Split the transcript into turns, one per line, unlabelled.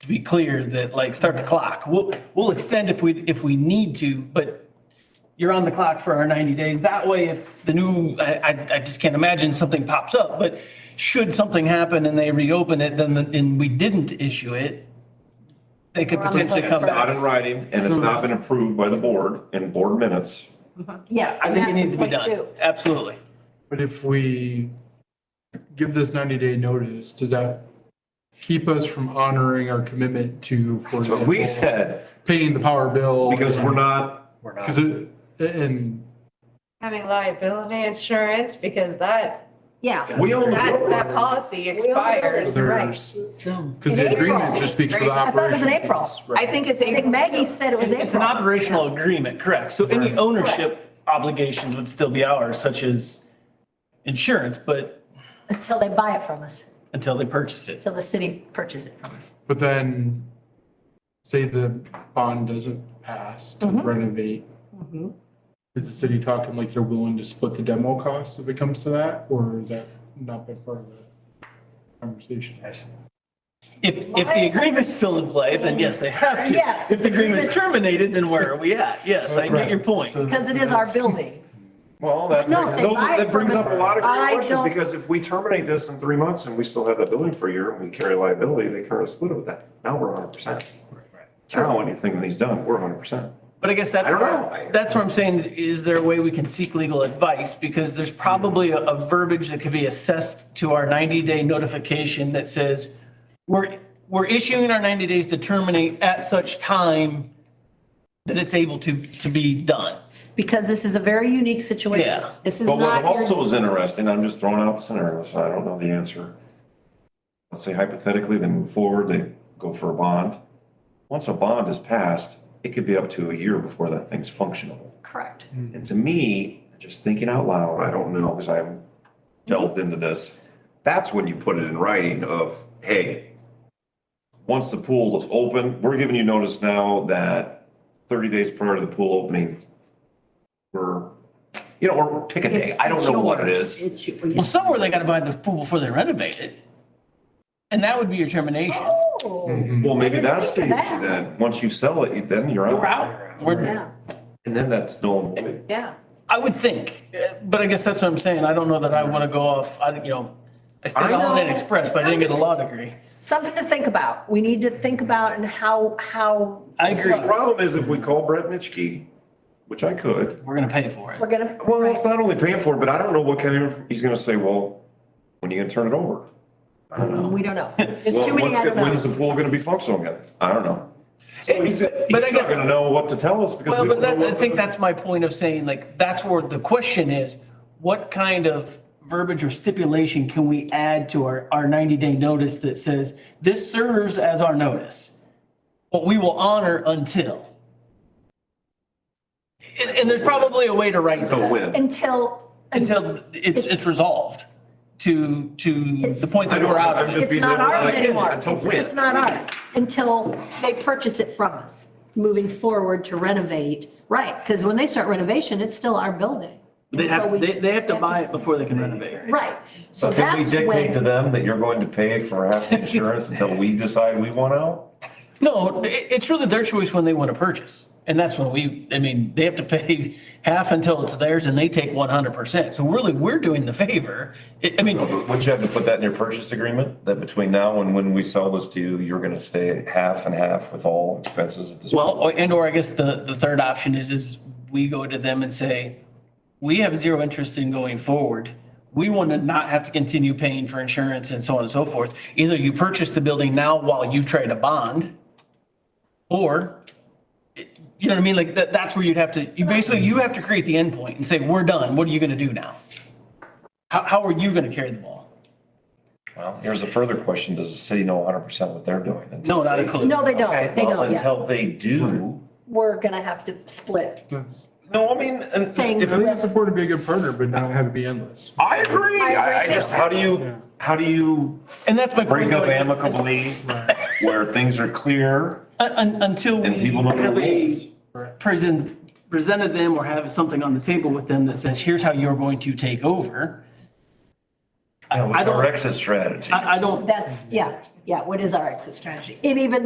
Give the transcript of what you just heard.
to be clear that like, start the clock. We'll, we'll extend if we, if we need to, but you're on the clock for our 90 days. That way, if the new, I, I, I just can't imagine something pops up, but should something happen and they reopen it, then, the- and we didn't issue it, they could
We're on the
potentially
hook
come
for-
back.
Not in writing, and it's not been approved by the board in board minutes.
Yes.
I
and
think it
that's
needs to be
point two.
done. Absolutely.
But if we give this ninety day notice, does that keep us from honoring our commitment to, for
That's what we
example,
said,
paying the power bill?
because we're not,
We're not.
Because it, and
Having liability insurance because that,
Yeah.
we own the
that,
road.
that policy
buildings.
expires.
there's, because
In
the
April.
agreement just speaks for the
I
operation.
thought it was in April.
I think it's.
I think Maggie said it was
It's an
April.
operational agreement, correct. So any ownership obligations would still be ours, such as insurance, but
Until they buy it from us,
until they purchase it.
until the city purchases it from us.
But then, say the bond doesn't pass
Mm-hmm.
to renovate. Is the city talking like they're willing to split the demo costs if it comes to that, or is that not been part of the conversation?
If, if the agreement's still in play, then yes, they have to.
Yes.
If the agreement's terminated, then where are we at? Yes, I get your point.
Because it is our building.
Well, that's,
No, if they
those-
buy it
that brings
from
up a
us-
lot of
I
great questions,
don't-
because if we terminate this in three months and we still have that building for a year and we carry liability, they currently split it with that. Now we're hundred percent. Now, anything that he's done, we're hundred percent.
But I guess that's,
I don't
where-
know.
that's what I'm saying, is there a way we can seek legal advice? Because there's probably a- a verbiage that could be assessed to our 90-day notification that says, we're, we're issuing our 90 days to terminate at such time that it's able to, to be done.
Because this is a very unique situation.
Yeah.
This is
But what
not. your-
also is interesting, I'm just throwing out scenarios, so I don't know the answer. Let's say hypothetically, they move forward, they go for a bond. Once a bond is passed, it could be up to a year before that thing's functional.
Correct.
And to me, just thinking out loud, I don't know, because I haven't delved into this. That's when you put it in writing of, hey, once the pool is open, we're giving you notice now that thirty days prior to the pool opening, we're, you know, or pick a day.
It's-
I don't
it's
know what it
yours.
is.
It's you-
Well, somewhere they gotta buy the pool before they renovate it. And that would be your termination.
Oh,
Well, maybe
didn't
that's the
think of
issue
that.
then. Once you sell it, you- then you're
We're
out.
out. We're,
yeah.
And then that's no,
Yeah.
I would think, uh, but I guess that's what I'm saying. I don't know that I wanna go off, I, you know, I stayed
I
on Holiday Inn
know.
Express, but I didn't get a law degree.
Something to think about. We need to think about and how, how.
I
this
agree.
the
looks.
problem is if we call Brett Mitchkey, which I could,
We're gonna pay for it.
We're gonna.
Well, it's not only paying for it, but I don't know what kind of, he's gonna say, well, when are you gonna turn it over?
We don't know. There's
Well,
too many
what's
I
go-
don't know.
When's the pool gonna be functional again? I don't know. So
It-
he's, he's
but I
not
guess-
gonna know what to tell us because
Well,
we
but
don't know
that, I
what.
think
the-
that's my point of saying, like, that's where the question is, what kind of verbiage or stipulation can we add to our, our ninety day notice that says, this serves as our notice? But we will honor until. And, and there's probably a way to write
Until
that,
when?
Until.
until it's, it's resolved to, to the point
I
that
don't-
we're out
I'm
of it.
just
It's
being
not
liberal.
ours
Like,
anymore.
until
It's-
when?
It's not ours until they purchase it from us, moving forward to renovate. Right, because when they start renovation, it's still our building.
They
Until we-
have, they, they have to buy it
s-
before they can renovate.
Right, so
So can we
that's
dictate to
when,
them that you're going to pay for half the insurance until we decide we want out?
No, it, it's really their choice when they want to purchase. And that's when we, I mean, they have to pay half until it's theirs and they take one hundred percent. So really, we're doing the favor. I, I mean,
Wouldn't you have to put that in your purchase agreement, that between now and when we sell this to you, you're gonna stay at half and half with all expenses at this?
well, or- and or I guess the, the third option is, is we go to them and say, we have zero interest in going forward. We want to not have to continue paying for insurance and so on and so forth. Either you purchase the building now while you trade a bond or you know what I mean? Like that, that's where you'd have to, you basically, you have to create the endpoint and say, we're done. What are you going to do now? How, how are you going to carry the ball?
Well, here's a further question. Does the city know hundred percent what they're doing? until
No, not a clue.
no, they
Okay,
don't, they
well,
don't, yeah.
Until they do.
We're gonna have to split.
That's-
No, I mean, and
Things
if,
I think
with-
it's important to be a good partner, but not have it be endless.
I agree. I, I
too.
just, how do you, how do you
And that's my point.
break up
though, is-
amicably where things are clear
un- un- Until we
and people know the
have
rules?
a present, presented them or have something on the table with them that says, here's how you're going to take over.
Yeah,
I
what's our
don't-
exit strategy?
I, I don't,
That's, yeah, yeah, what is our exit strategy? And even